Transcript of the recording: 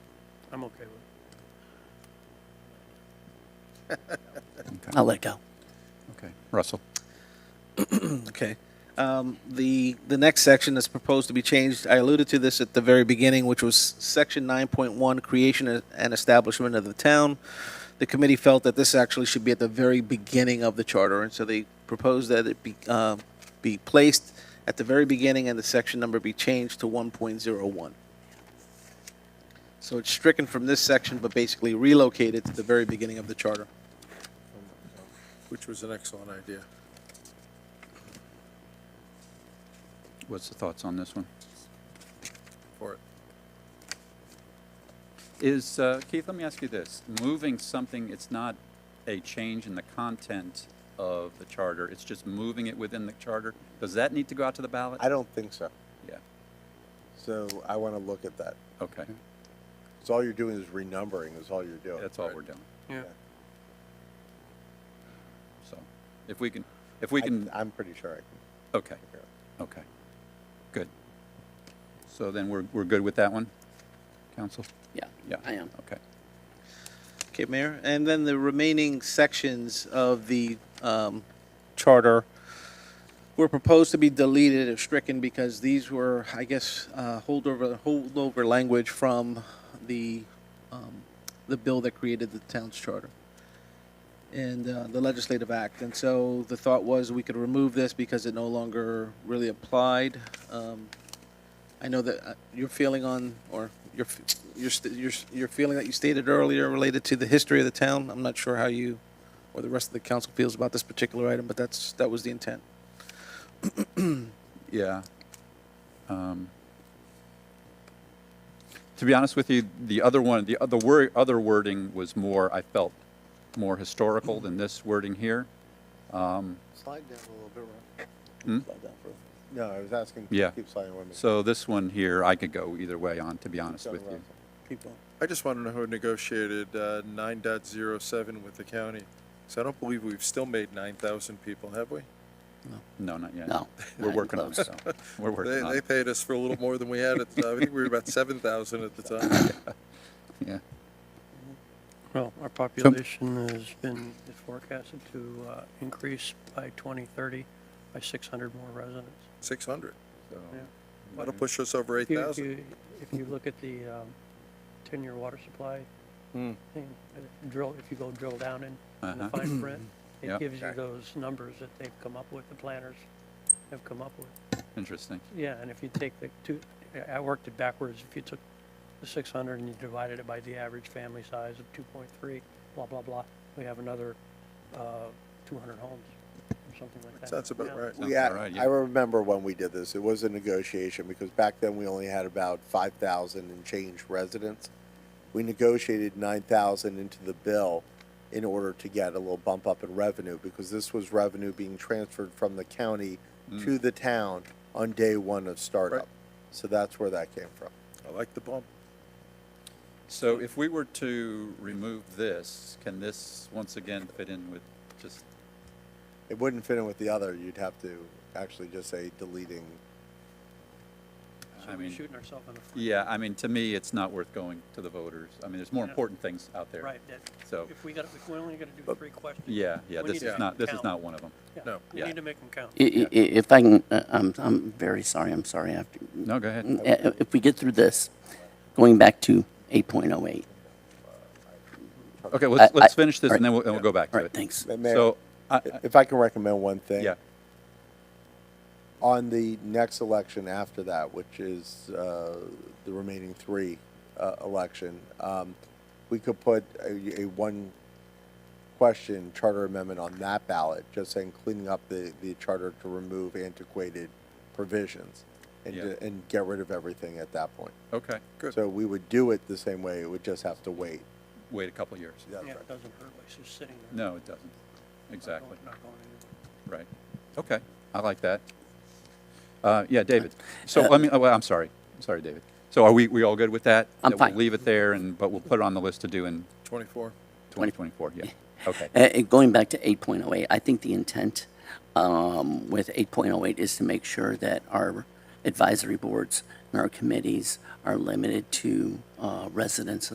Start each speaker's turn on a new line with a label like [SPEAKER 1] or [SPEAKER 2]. [SPEAKER 1] I'm okay with it.
[SPEAKER 2] I'll let go.
[SPEAKER 3] Oh.
[SPEAKER 4] Okay, Russell.
[SPEAKER 5] Okay. Um, The, the next section that's proposed to be changed, I alluded to this at the very beginning, which was Section 9.1, Creation and Establishment of the Town. The committee felt that this actually should be at the very beginning of the charter, and so they proposed that it be, uh, be placed at the very beginning and the section number be changed to 1.01. So it's stricken from this section, but basically relocated to the very beginning of the charter.
[SPEAKER 6] which was an excellent idea.
[SPEAKER 4] What's the thoughts on this one?
[SPEAKER 6] For it.
[SPEAKER 4] Is, uh, Keith, let me ask you this. Moving something, it's not a change in the content of the charter, it's just moving it within the charter. Does that need to go out to the ballot?
[SPEAKER 3] I don't think so.
[SPEAKER 4] Yeah,
[SPEAKER 3] So I want to look at that.
[SPEAKER 4] okay.
[SPEAKER 3] So all you're doing is renumbering is all you're doing.
[SPEAKER 4] That's all
[SPEAKER 3] Right.
[SPEAKER 4] we're doing.
[SPEAKER 1] Yeah.
[SPEAKER 4] So if we can, if we can,
[SPEAKER 3] I, am pretty sure I can.
[SPEAKER 4] okay, okay. Good. So then we're, we're good with that one, council?
[SPEAKER 2] Yeah,
[SPEAKER 4] Yeah.
[SPEAKER 2] I am.
[SPEAKER 4] Okay.
[SPEAKER 5] Okay, Mayor, and then the remaining sections of the um, charter were proposed to be deleted or stricken because these were, I guess, uh, holdover, holdover language from the, um, the bill that created the town's charter and uh, the legislative act. And so the thought was we could remove this because it no longer really applied. Um, I know that uh, your feeling on, or your, f- your, st- your, s- your feeling that you stated earlier related to the history of the town. I'm not sure how you or the rest of the council feels about this particular item, but that's, that was the intent.
[SPEAKER 4] Yeah. Um, To be honest with you, the other one, the other word, other wording was more, I felt, more historical than this wording here.
[SPEAKER 3] Slide down a little bit, Ron.
[SPEAKER 5] Slide down further.
[SPEAKER 3] No, I was asking.
[SPEAKER 4] Yeah.
[SPEAKER 3] Keep sliding with me.
[SPEAKER 4] So this one here, I could go either way on, to be honest
[SPEAKER 3] Go to
[SPEAKER 4] with you.
[SPEAKER 3] Russell.
[SPEAKER 5] Keep going.
[SPEAKER 6] I just want to know who negotiated uh, 9.07 with the county. So I don't believe we've still made 9,000 people, have we?
[SPEAKER 4] No, not yet.
[SPEAKER 2] No,
[SPEAKER 4] We're
[SPEAKER 2] not
[SPEAKER 4] working on it,
[SPEAKER 2] close.
[SPEAKER 4] so, we're
[SPEAKER 6] They,
[SPEAKER 4] working on
[SPEAKER 6] they
[SPEAKER 4] it,
[SPEAKER 6] paid us for a little more than we had at the time. I think we were about 7,000 at the time.
[SPEAKER 4] yeah.
[SPEAKER 1] Well, our population has been is forecasted to uh, increase by 2030 by 600 more residents.
[SPEAKER 6] 600.
[SPEAKER 4] So-
[SPEAKER 1] Yeah.
[SPEAKER 6] That'll push us over
[SPEAKER 1] If you-
[SPEAKER 6] 8,000.
[SPEAKER 1] If you, if you look at the um, 10-year water supply
[SPEAKER 6] Hmm.
[SPEAKER 1] thing, uh, drill, if you go drill down in, in the
[SPEAKER 4] Uh-huh.
[SPEAKER 1] fine print, it
[SPEAKER 4] Yep.
[SPEAKER 1] gives you
[SPEAKER 3] Okay.
[SPEAKER 1] those numbers that they've come up with, the planners have come up with.
[SPEAKER 4] Interesting.
[SPEAKER 1] Yeah, and if you take the two, I- I worked it backwards. If you took the six hundred and you divided it by the average family size of two point three, blah, blah, blah, we have another, uh, two hundred homes or something like that.
[SPEAKER 6] Sounds about
[SPEAKER 1] Yeah.
[SPEAKER 6] right.
[SPEAKER 4] Sounds
[SPEAKER 3] We had,
[SPEAKER 4] about right, yeah.
[SPEAKER 3] I remember when we did this. It was a negotiation because back then we only had about 5,000 and change residents. We negotiated 9,000 into the bill in order to get a little bump up in revenue because this was revenue being transferred from the county
[SPEAKER 4] Mm.
[SPEAKER 3] to the town on day one of startup.
[SPEAKER 6] Right.
[SPEAKER 3] So that's where that came from.
[SPEAKER 6] I like the bump.
[SPEAKER 4] So if we were to remove this, can this once again fit in with just,
[SPEAKER 3] It wouldn't fit in with the other. You'd have to actually just say deleting.
[SPEAKER 4] I
[SPEAKER 1] So we're
[SPEAKER 4] mean,
[SPEAKER 1] shooting ourselves in the foot.
[SPEAKER 4] yeah, I mean, to me, it's not worth going to the voters. I mean, there's more
[SPEAKER 1] Yeah.
[SPEAKER 4] important things out there.
[SPEAKER 1] Right, that,
[SPEAKER 4] So-
[SPEAKER 1] if we got, if we're only gonna do
[SPEAKER 6] But-
[SPEAKER 1] three questions.
[SPEAKER 4] Yeah, yeah,
[SPEAKER 1] we
[SPEAKER 4] this
[SPEAKER 1] need to
[SPEAKER 4] is
[SPEAKER 1] make
[SPEAKER 4] not,
[SPEAKER 1] them
[SPEAKER 4] this is
[SPEAKER 1] count.
[SPEAKER 4] not one of them.
[SPEAKER 1] Yeah,
[SPEAKER 6] No.
[SPEAKER 1] We
[SPEAKER 4] Yeah.
[SPEAKER 1] need to make them count.
[SPEAKER 2] I- i- i- If I can, uh, I'm, I'm very sorry, I'm sorry. I have to-
[SPEAKER 4] No, go ahead.
[SPEAKER 2] Uh, If we get through this, going back to 8.08,
[SPEAKER 4] Okay, let's,
[SPEAKER 2] I-
[SPEAKER 4] let's
[SPEAKER 2] I-
[SPEAKER 4] finish this
[SPEAKER 2] all
[SPEAKER 4] and then we'll, and we'll go back to
[SPEAKER 2] all
[SPEAKER 4] it.
[SPEAKER 2] right, thanks. Uh,
[SPEAKER 3] Mayor,
[SPEAKER 4] So, I, I-
[SPEAKER 3] if I can recommend one thing.
[SPEAKER 4] yeah,
[SPEAKER 3] on the next election after that, which is uh, the remaining three uh, election, um, we could put a, a one question charter amendment on that ballot, just saying cleaning up the, the charter to remove antiquated provisions and,
[SPEAKER 4] Yeah.
[SPEAKER 3] and get rid of everything at that point.
[SPEAKER 4] okay,
[SPEAKER 6] Good.
[SPEAKER 3] So we would do it the same way. It would just have to wait.
[SPEAKER 4] wait a couple years.
[SPEAKER 3] That's
[SPEAKER 1] Yeah,
[SPEAKER 3] right.
[SPEAKER 1] it doesn't hurt, like, it's just sitting there.
[SPEAKER 4] No, it doesn't.
[SPEAKER 1] not
[SPEAKER 4] Exactly,
[SPEAKER 1] going- Not going anywhere.
[SPEAKER 4] right. Okay, I like that. Uh, yeah, David. So let me, oh, well, I'm sorry, sorry, David. So are we, we all good with that?
[SPEAKER 2] I'm
[SPEAKER 4] That we'll
[SPEAKER 2] fine.
[SPEAKER 4] Leave it there and, but we'll put it on the list to do in
[SPEAKER 6] 24.
[SPEAKER 4] 2024, yeah, okay.
[SPEAKER 2] Uh, uh, Going back to 8.08, I think the intent um, with 8.08 is to make sure that our advisory boards and our committees are limited to uh, residents